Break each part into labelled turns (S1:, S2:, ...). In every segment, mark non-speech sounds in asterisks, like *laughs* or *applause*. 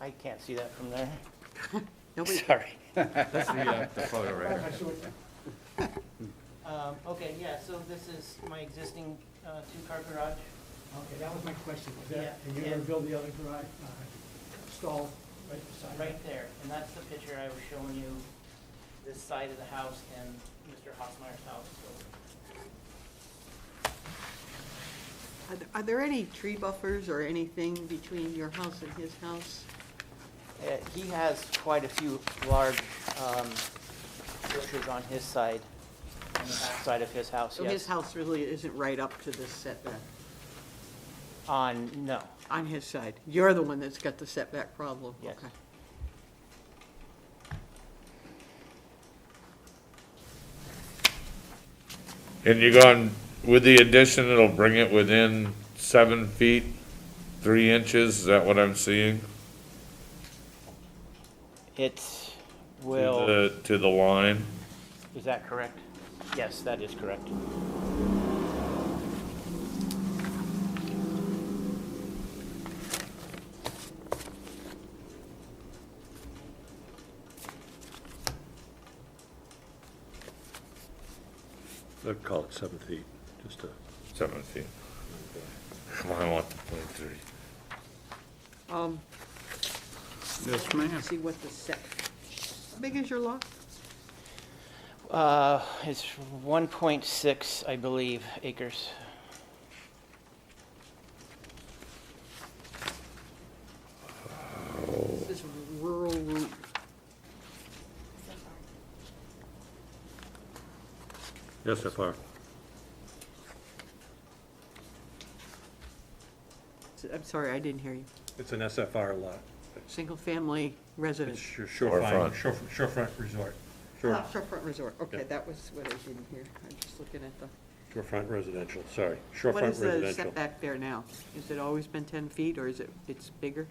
S1: I can't see that from there.
S2: Nobody,
S1: Sorry.
S3: That's the, uh, the photo right here.
S1: Um, Okay, yeah, so this is my existing uh, two-car garage.
S4: Okay, that was my question, was that,
S1: Yeah,
S4: and you're gonna
S1: and-
S4: build the other garage, uh, stall right beside it?
S1: right there, and that's the picture I was showing you, this side of the house and Mr. Hosmeyer's house, so.
S2: are there- are there any tree buffers or anything between your house and his house?
S1: Uh, He has quite a few large um, bushes on his side, on the back side of his house,
S2: So his
S1: yes.
S2: house really isn't right up to the setback
S1: On, no,
S2: on his side. You're the one that's got the setback problem.
S1: Yes.
S2: Okay.
S5: And you're going, with the addition, it'll bring it within seven feet, three inches, is that what I'm seeing?
S1: it
S5: To
S1: will,
S5: the- To the line?
S1: is that correct? Yes, that is correct.
S6: I'd call it seven feet, just to,
S5: Seven feet. Come on, I want the point three.
S2: Um,
S3: Yes, ma'am.
S2: see what the set, how big is your lot?
S1: Uh, It's 1.6, I believe, acres.
S2: This rural route.
S6: yes, FR.
S2: I'm sorry, I didn't hear you.
S6: It's an SFR lot.
S2: Single-family residence.
S6: It's your
S5: Shorefront.
S6: shorefront, shore- shorefront resort, shore-
S2: Ah, Shorefront Resort. Okay,
S6: Yeah.
S2: that was what I didn't hear. I'm just looking at the,
S6: shorefront residential, sorry,
S2: what
S6: shorefront
S2: is the
S6: residential.
S2: setback there now? Has it always been 10 feet, or is it, it's bigger?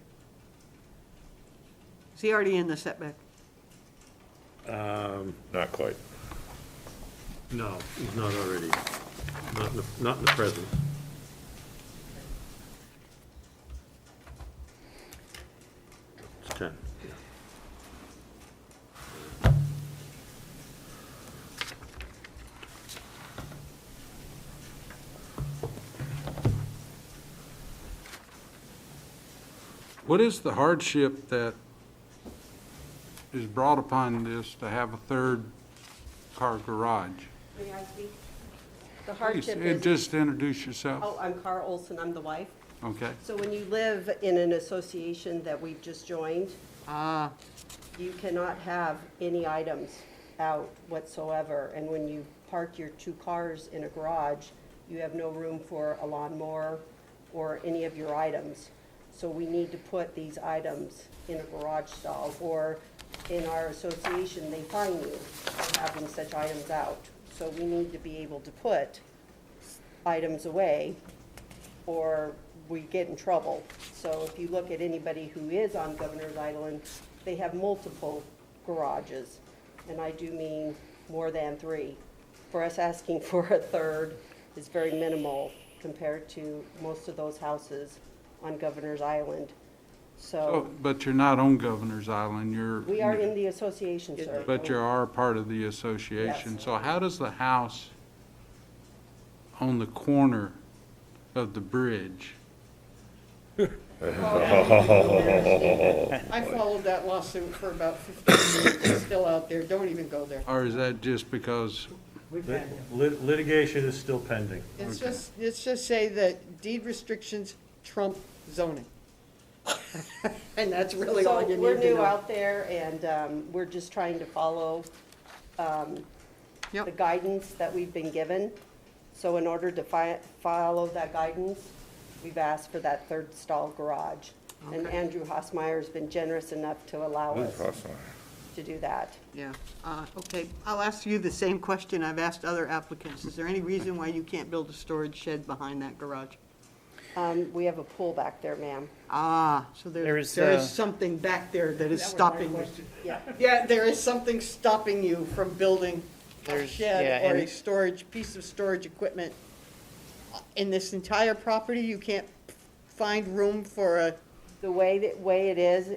S2: Is he already in the setback?
S6: Um,
S5: Not quite.
S6: no, he's not already, not in the, not in the present. It's ten.
S7: What is the hardship that is brought upon this to have a third car garage?
S8: May I speak? The
S7: Please,
S8: hardship
S7: and
S8: is,
S7: Just introduce
S8: oh,
S7: yourself,
S8: I'm Carl Olson, I'm the wife.
S7: okay?
S8: So when you live in an association that we've just joined,
S2: Ah,
S8: you cannot have any items out whatsoever. And when you park your two cars in a garage, you have no room for a lawnmower or any of your items. So we need to put these items in a garage stall, or in our association, they fine you for having such items out. So we need to be able to put items away or we get in trouble. So if you look at anybody who is on Governor's Island, they have multiple garages, and I do mean more than three. For us asking *laughs* for a third is very minimal compared to most of those houses on Governor's Island.
S7: Oh,
S8: So
S7: But you're not on Governor's Island, you're.
S8: we are in the association, sir.
S7: But you are part of the association.
S8: Yes.
S7: So how does the house on the corner of the bridge?
S9: I followed that lawsuit for about 15 minutes, it's still out there, don't even go there.
S7: Or is that just because,
S4: We've had,
S6: Lit- lit- Litigation is still pending.
S9: It's just, it's just say that deed restrictions trump zoning. And that's really all you
S8: So we're
S9: need to
S8: new
S9: know.
S8: out there, and um, we're just trying to follow the
S2: yep,
S8: guidance that we've been given. So in order to fi- follow that guidance, we've asked for that third stall garage. And
S2: Okay.
S8: Andrew Hosmeyer's been generous enough to allow us
S5: Cross line.
S8: to do that.
S2: yeah. Uh, Okay, I'll ask you the same question I've asked other applicants. Is there any reason why you can't build a storage shed behind that garage?
S8: Um, we have a pool back there, ma'am.
S2: Ah, so
S1: There
S2: there,
S1: is,
S2: there
S1: uh,
S2: is something back there that is stopping you.
S8: Yeah.
S9: Yeah, there is something stopping you from building a
S1: There's- yeah,
S9: shed or
S1: and-
S9: a storage, piece of storage equipment. In this entire property, you can't find room for a
S8: The way that, way it is,